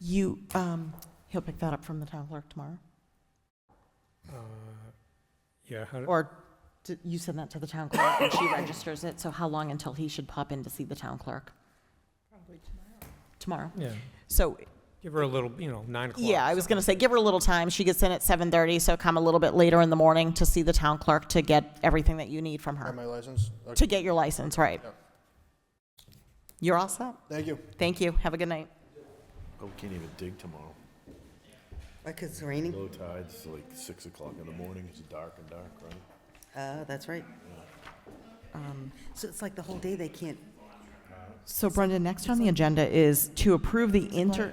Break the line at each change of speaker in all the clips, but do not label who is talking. You, um, he'll pick that up from the town clerk tomorrow?
Uh, Yeah, how,
Or d- you send that to the town clerk and she registers it, so how long until he should pop in to see the town clerk? Probably tomorrow. Tomorrow.
yeah,
So,
give her a little, you know, nine o'clock.
yeah, I was going to say, give her a little time. She gets in at 7:30, so come a little bit later in the morning to see the town clerk to get everything that you need from
Have
her,
my license? Okay,
to get your license, right?
Yeah.
You're all set?
Thank you.
Thank you. Have a good night.
Oh, we can't even dig tomorrow.
Like it's raining?
Low tide's like six o'clock in the morning. It's dark and dark, right?
Uh, that's right. Um, So it's like the whole day they can't,
So Brenda, next on the agenda is to approve the inter,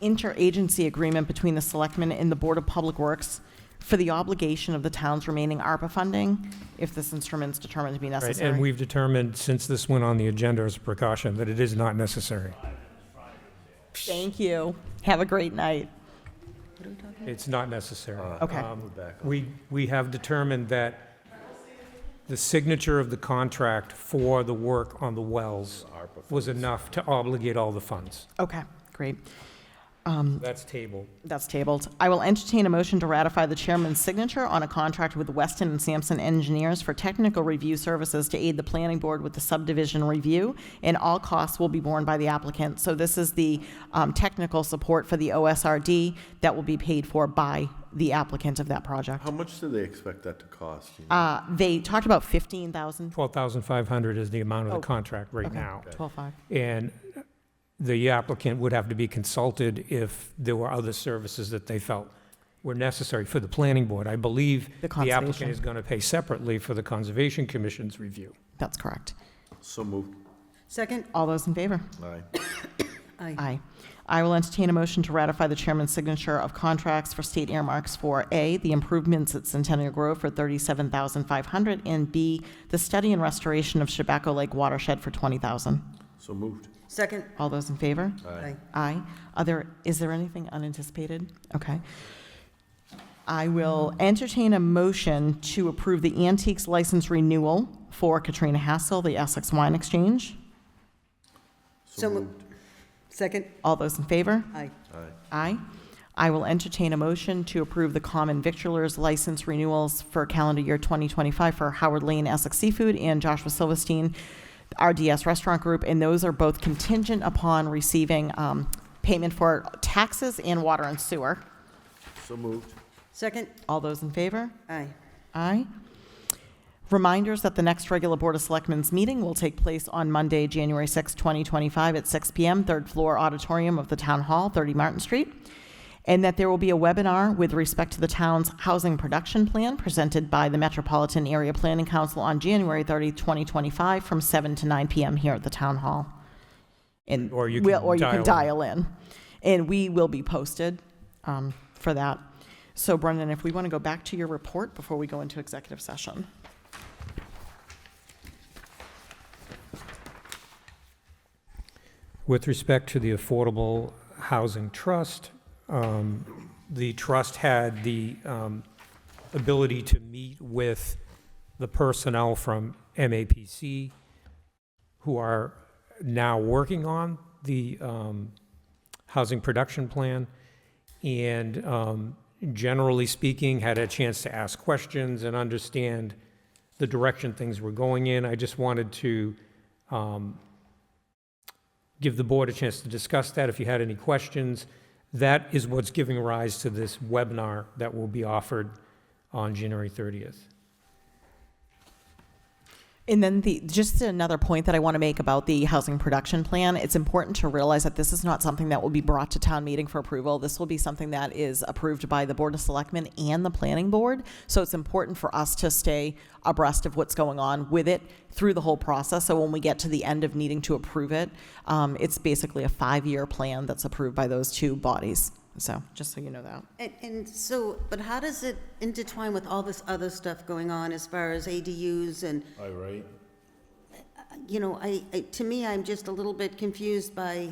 interagency agreement between the Selectmen and the Board of Public Works for the obligation of the town's remaining ARPA funding if this instrument's determined to be
Right, and
necessary.
we've determined, since this went on the agenda as a precaution, that it is not necessary.
Thank you. Have a great night.
It's not necessary.
Okay.
Um, We, we have determined that the signature of the contract for the work on the wells was enough to obligate all the funds.
Okay, great.
That's table.
That's tabled. I will entertain a motion to ratify the chairman's signature on a contract with Weston and Sampson Engineers for technical review services to aid the planning board with the subdivision review, and all costs will be borne by the applicant. So this is the um, technical support for the OSRD that will be paid for by the applicant of that project.
How much do they expect that to cost? you know?
Uh, They talked about 15,000.
12,500 is the amount of
Oh,
the contract right
okay,
now.
12,500.
And the applicant would have to be consulted if there were other services that they felt were necessary for the planning board. I believe
The
the
conservation.
applicant is going to pay separately for the Conservation Commission's review.
That's correct.
So moved.
second?
All those in favor?
Aye.
Aye.
Aye. I will entertain a motion to ratify the chairman's signature of contracts for state earmarks for A, the improvements at Centennial Grove for 37500 and B, the study and restoration of Chabaco Lake watershed for 20000
So moved.
Second?
All those in favor?
Aye.
Aye. Are there, is there anything unanticipated? Okay. I will entertain a motion to approve the antiques license renewal for Katrina Hassel, the Essex Wine Exchange.
So
So mo-
moved.
Second?
All those in favor?
Aye.
Aye.
Aye. I will entertain a motion to approve the common victualers license renewals for calendar year 2025 for Howard Lane Essex Seafood and Joshua Silverstein RDS Restaurant Group, and those are both contingent upon receiving um, payment for taxes and water and sewer.
So moved.
Second?
All those in favor?
Aye.
Aye. Reminders that the next regular Board of Selectmen's meeting will take place on Monday, January 6, 2025, at 6 PM, third floor auditorium of the Town Hall, 30 Martin Street, and that there will be a webinar with respect to the town's housing production plan presented by the Metropolitan Area Planning Council on January 30, 2025, from 7 to 9 PM here at the Town Hall. And
Or you
we'll-
can
Or you can
dial
dial in. And we will be posted um, for that. So Brendan, if we want to go back to your report before we go into executive session.
With respect to the Affordable Housing Trust, um, the trust had the um, ability to meet with the personnel from MAPC who are now working on the um, housing production plan, and um, generally speaking, had a chance to ask questions and understand the direction things were going in. I just wanted to um, give the board a chance to discuss that if you had any questions. That is what's giving rise to this webinar that will be offered on January 30th.
And then the, just another point that I want to make about the housing production plan, it's important to realize that this is not something that will be brought to town meeting for approval. This will be something that is approved by the Board of Selectmen and the Planning Board. So it's important for us to stay abreast of what's going on with it through the whole process. So when we get to the end of needing to approve it, um, it's basically a five-year plan that's approved by those two bodies. So, just so you know that.
And, and so, but how does it intertwine with all this other stuff going on as far as ADUs and,
Aye, right?
you know, I, I- to me, I'm just a little bit confused by